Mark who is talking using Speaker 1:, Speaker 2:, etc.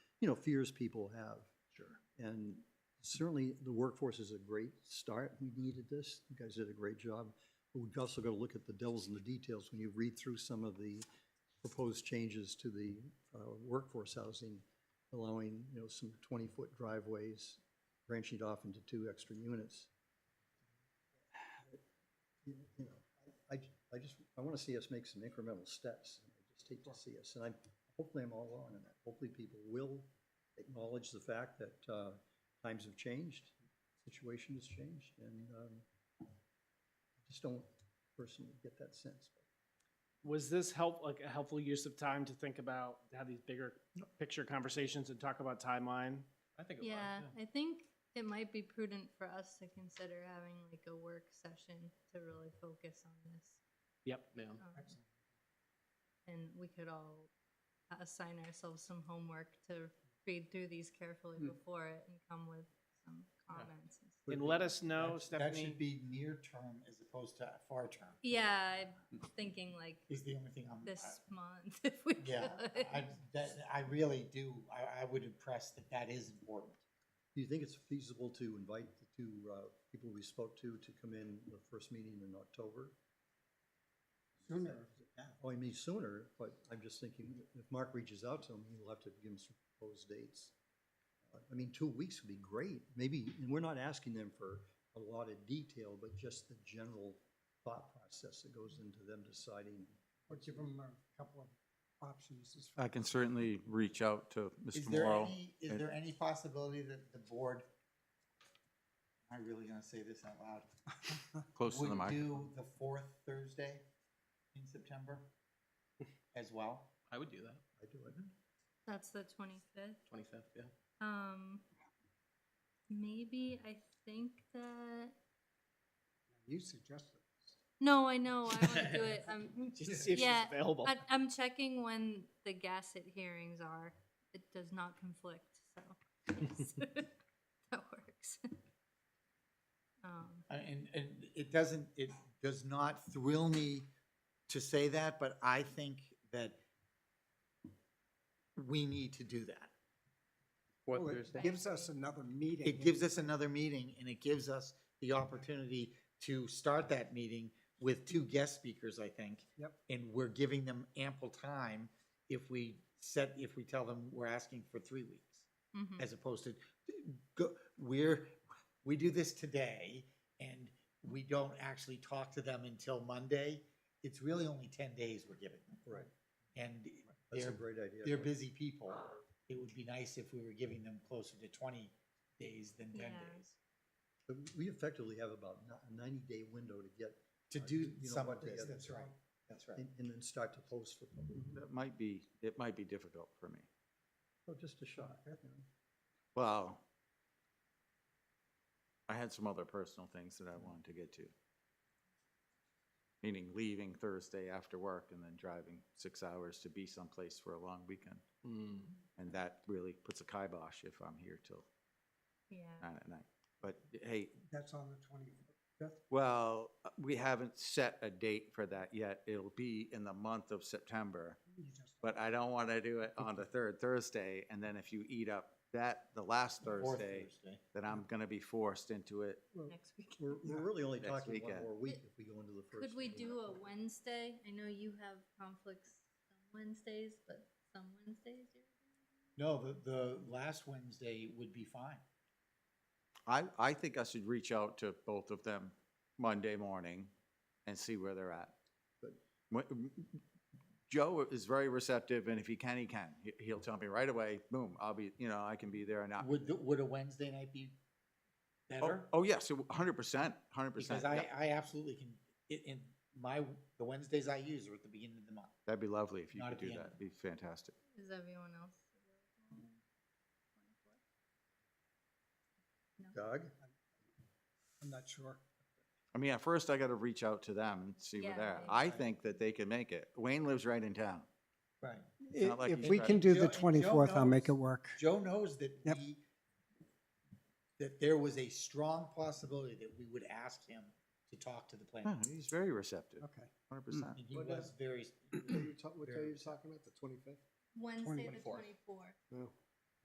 Speaker 1: you know, fears people have.
Speaker 2: Sure.
Speaker 1: And certainly, the workforce is a great start. We needed this. You guys did a great job. But we've also got to look at the devils in the details when you read through some of the proposed changes to the uh, workforce housing, allowing, you know, some 20-foot driveways, branching it off into two extra units. You know, I, I just, I want to see us make some incremental steps. I just hate to see us, and I'm, hopefully I'm all wrong in that. Hopefully people will acknowledge the fact that uh, times have changed, situation has changed, and um, I just don't personally get that sense.
Speaker 3: Was this help like a helpful use of time to think about to have these bigger picture conversations and talk about timeline?
Speaker 2: I think it was.
Speaker 4: Yeah, I think it might be prudent for us to consider having like a work session to really focus on this.
Speaker 3: Yep. Yeah.
Speaker 4: um, And we could all a- assign ourselves some homework to read through these carefully
Speaker 1: Hmm.
Speaker 4: before it and come with some comments. and stuff.
Speaker 3: And let us know,
Speaker 5: That- That
Speaker 3: Stephanie.
Speaker 5: should be near term as opposed to far term.
Speaker 4: Yeah, I'm thinking like
Speaker 5: Is the only thing I'm.
Speaker 4: this
Speaker 5: I-
Speaker 4: month if we could.
Speaker 5: Yeah, I, that, I really do, I, I would impress that that is important.
Speaker 1: Do you think it's feasible to invite the two uh, people we spoke to to come in the first meeting in October?
Speaker 5: Sooner. yeah.
Speaker 1: Oh, I mean sooner, but I'm just thinking, if Mark reaches out to him, he'll have to give him some proposed dates. Uh, I mean, two weeks would be great, maybe, and we're not asking them for a lot of detail, but just the general thought process that goes into them deciding.
Speaker 6: or give them a couple of options as far
Speaker 7: I can certainly reach out to
Speaker 5: Is
Speaker 7: Mr.
Speaker 5: there
Speaker 7: Morrow.
Speaker 5: any, is
Speaker 7: and-
Speaker 5: there any possibility that the board, am I really gonna say this out loud?
Speaker 7: Close to the
Speaker 5: Would do
Speaker 7: microphone.
Speaker 5: the fourth Thursday in September as well?
Speaker 2: I would do that.
Speaker 1: I do it.
Speaker 4: That's the twenty-fifth.
Speaker 2: Twenty fifth. Yeah.
Speaker 4: Um, maybe I think that,
Speaker 6: you suggested.
Speaker 4: no, I know, I wanna do it, um,
Speaker 3: Just to see if
Speaker 4: Yeah,
Speaker 3: she's available.
Speaker 4: I, I'm checking when the gasset hearings are. It does not conflict, so yes, that works. Um,
Speaker 5: I- And, and it doesn't, it does not thrill me to say that, but I think that we need to do that.
Speaker 6: Well, Oh, it gives us another meeting.
Speaker 5: It gives us another meeting and it gives us the opportunity to start that meeting with two guest speakers, I think.
Speaker 6: Yep.
Speaker 5: And we're giving them ample time if we set, if we tell them we're asking for three weeks
Speaker 1: Mm.
Speaker 4: mhm.
Speaker 5: as opposed to go, we're, we do this today and we don't actually talk to them until Monday. It's really only ten days we're giving them.
Speaker 1: Right.
Speaker 5: And
Speaker 1: That's a
Speaker 5: they're,
Speaker 1: great idea.
Speaker 5: they're busy people. It would be nice if we were giving them closer to twenty days than ten
Speaker 4: Yeah.
Speaker 5: days
Speaker 1: But We effectively have about a ninety-day window to get,
Speaker 5: to
Speaker 1: Right,
Speaker 5: do
Speaker 1: you know
Speaker 5: some
Speaker 1: what
Speaker 5: of
Speaker 1: they
Speaker 5: this.
Speaker 1: have.
Speaker 6: That's right.
Speaker 5: That's right.
Speaker 1: and and then start to post for public.
Speaker 7: That might be, it might be difficult for me.
Speaker 1: So Oh, just a shot. you know.
Speaker 7: Well, I had some other personal things that I wanted to get to. Meaning leaving Thursday after work and then driving six hours to be someplace for a long weekend.
Speaker 5: Hmm.
Speaker 7: And that really puts a kibosh if I'm here till
Speaker 4: Yeah,
Speaker 7: nine at night. But hey,
Speaker 6: That's on the twenty-fifth.
Speaker 7: Well, we haven't set a date for that yet. It'll be in the month of September. But I don't want to do it on the third Thursday, and then if you eat up that, the last
Speaker 5: Or
Speaker 7: Thursday, then I'm going to be forced into it.
Speaker 4: next week.
Speaker 1: We're, we're really only
Speaker 7: Next
Speaker 1: talking one
Speaker 7: weekend.
Speaker 1: more week if we go into the first.
Speaker 4: Could we
Speaker 1: meeting.
Speaker 4: do a Wednesday? I know you have conflicts some Wednesdays, but some Wednesdays you're.
Speaker 5: No, the, the last Wednesday would be fine.
Speaker 7: I, I think I should reach out to both of them Monday morning and see where they're at. But when- Joe is very receptive, and if he can, he can. He- He'll tell me right away, boom, I'll be, you know, I can be there or not.
Speaker 5: Would, the- would a Wednesday night be
Speaker 7: Ah. Oh,
Speaker 5: better?
Speaker 7: oh, yeah, so 100%, 100%.
Speaker 5: Because
Speaker 7: yeah.
Speaker 5: I, I absolutely can, it, in my, the Wednesdays I use are at the beginning of the month.
Speaker 7: That'd be lovely if you
Speaker 5: Not
Speaker 7: could
Speaker 5: at the
Speaker 7: do
Speaker 5: end.
Speaker 7: that. It'd be fantastic.
Speaker 4: Is everyone else? available?
Speaker 1: Doug?
Speaker 6: I'm not sure.
Speaker 7: I mean, at first I gotta reach out to them and see where
Speaker 4: Yeah,
Speaker 7: they're at.
Speaker 4: yeah.
Speaker 7: I think that they can make it. Wayne lives right in town.
Speaker 5: Right.
Speaker 7: It's not like
Speaker 6: If
Speaker 7: he's
Speaker 6: we
Speaker 7: got-
Speaker 6: can do
Speaker 5: Joe-
Speaker 6: the
Speaker 5: Joe
Speaker 6: twenty-fourth, I'll make it
Speaker 5: knows.
Speaker 6: work.
Speaker 5: Joe knows that
Speaker 6: Yep.
Speaker 5: we, that there was a strong possibility that we would ask him to talk to the
Speaker 7: No,
Speaker 5: planning.
Speaker 7: He's very receptive,
Speaker 6: Okay.
Speaker 7: hundred percent.
Speaker 5: And he was very,
Speaker 8: What are you talking about, the twenty-fifth?
Speaker 4: Wednesday the
Speaker 5: 24th.
Speaker 4: twenty-fourth.
Speaker 8: No,